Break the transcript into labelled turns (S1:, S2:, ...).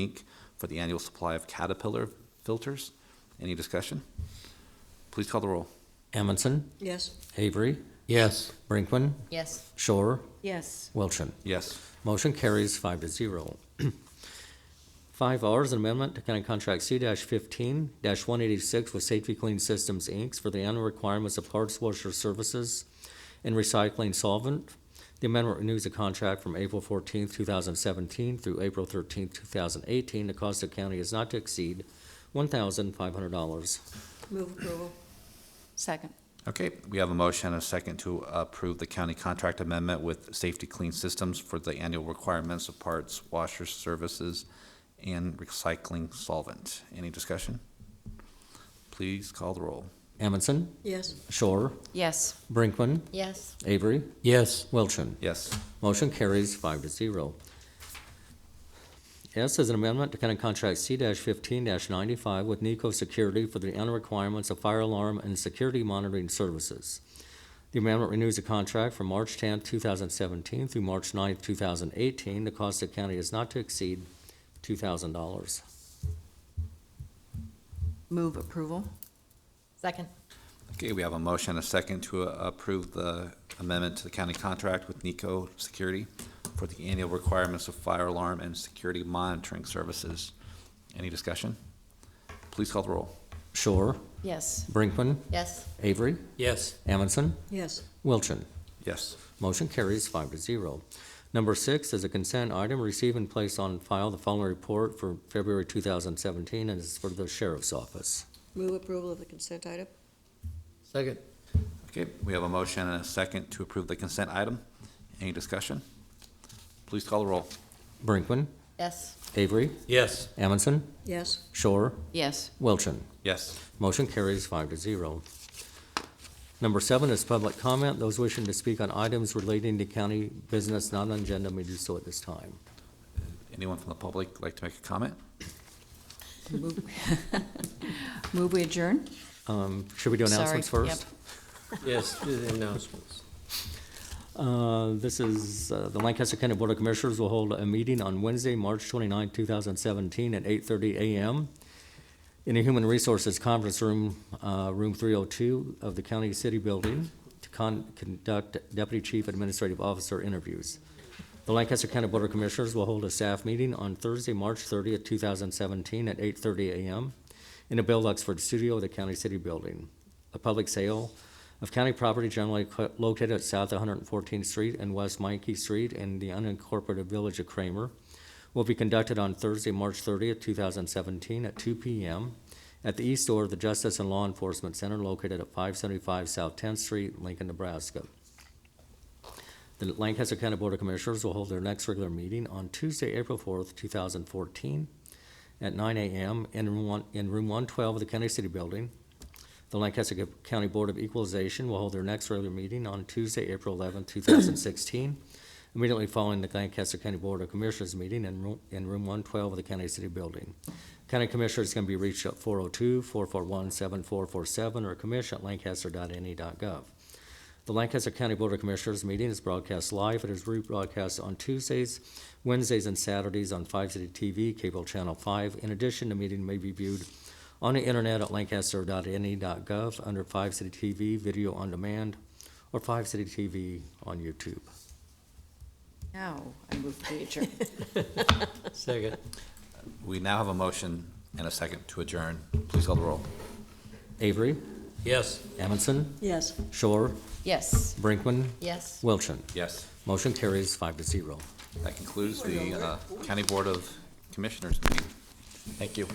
S1: Inc. for the annual supply of Caterpillar filters. Any discussion? Please call the roll.
S2: Amundson,
S3: Yes.
S2: Avery,
S4: Yes.
S2: Brinkman,
S3: Yes.
S2: Shore,
S3: Yes.
S2: Wilchin.
S1: Yes.
S2: Motion carries five to zero. Five R is an amendment to county contract C fifteen one eighty-six with Safety Clean Systems, Inc. for the annual requirements of parts washer services and recycling solvent. The amendment renews the contract from April fourteenth, two thousand seventeen through April thirteenth, two thousand eighteen. The cost of county is not to exceed one thousand five hundred dollars.
S3: Move approval. Second.
S1: Okay, we have a motion and a second to approve the county contract amendment with Safety Clean Systems for the annual requirements of parts, washers, services, and recycling solvent. Any discussion? Please call the roll.
S2: Amundson,
S3: Yes.
S2: Shore,
S3: Yes.
S2: Brinkman,
S3: Yes.
S2: Avery,
S4: Yes.
S2: Wilchin.
S1: Yes.
S2: Motion carries five to zero. S is an amendment to county contract C fifteen ninety-five with Nico Security for the annual requirements of fire alarm and security monitoring services. The amendment renews the contract from March tenth, two thousand seventeen through March 9th, two thousand eighteen. The cost to the county is not to exceed two thousand dollars.
S3: Move approval. Second.
S1: Okay, we have a motion and a second to uh, approve the amendment to the county contract with Nico Security for the annual requirements of fire alarm and security monitoring services. Any discussion? Please call the roll.
S2: Shore,
S3: Yes.
S2: Brinkman,
S3: Yes.
S2: Avery,
S4: Yes.
S2: Amundson,
S3: Yes.
S2: Wilchin.
S1: Yes.
S2: Motion carries five to zero. Number six is a consent item, receive and place on file the following report for February 2017, and it's for the sheriff's office.
S3: Move approval of the consent item.
S4: Second.
S1: Okay, we have a motion and a second to approve the consent item. Any discussion? Please call the roll.
S2: Brinkman,
S3: Yes.
S2: Avery,
S4: Yes.
S2: Amundson,
S3: Yes.
S2: Shore,
S3: Yes.
S2: Wilchin.
S1: Yes.
S2: Motion carries five to zero. Number seven is public comment. Those wishing to speak on items relating to county business not on agenda may do so at this time.
S1: Anyone from the public like to make a comment?
S5: Move we adjourn?
S2: Um, Should we do announcements
S5: Sorry,
S2: first?
S4: Yes, do the announcements.
S2: Uh, This is, uh, the Lancaster County Board of Commissioners will hold a meeting on Wednesday, March 29, 2017, at 8:30 a.m. in the Human Resources Conference Room, uh, Room 302 of the County City Building, to con- conduct Deputy Chief Administrative Officer interviews. The Lancaster County Board of Commissioners will hold a staff meeting on Thursday, March 30, 2017, at 8:30 a.m. in the Bill Luxford Studio of the County City Building. A public sale of county property generally co- located at South 114th Street and West Mikey Street in the unincorporated village of Kramer will be conducted on Thursday, March 30th, 2017, at 2 p.m. at the east door of the Justice and Law Enforcement Center located at 575 South 10th Street, Lincoln, Nebraska. The Lancaster County Board of Commissioners will hold their next regular meeting on Tuesday, April 4th, 2014, at 9 a.m. in room one- in room 112 of the County City Building, the Lancaster County Board of Equalization will hold their next regular meeting on Tuesday, April 11, 2016, immediately following the Lancaster County Board of Commissioners meeting in room in room 112 of the County City Building. County Commissioners can be reached at 402-441-7447 or commish@lancaster.ne.gov. E The Lancaster County Board of Commissioners meeting is broadcast live. It is rebroadcast on Tuesdays, Wednesdays, and Saturdays on 5 City TV, Cable Channel 5. In addition, the meeting may be viewed on the internet at lancaster.ne.gov E under Five City TV Video on Demand or Five City TV on YouTube.
S5: Now, I move we adjourn.
S4: Second.
S1: We now have a motion and a second to adjourn. Please call the roll.
S2: Avery,
S4: Yes.
S2: Amundson,
S3: Yes.
S2: Shore,
S5: Yes.
S2: Brinkman,
S5: Yes.
S2: Wilchin.
S1: Yes.
S2: Motion carries five to zero.
S1: That concludes the uh, County Board of Commissioners meeting. Thank you.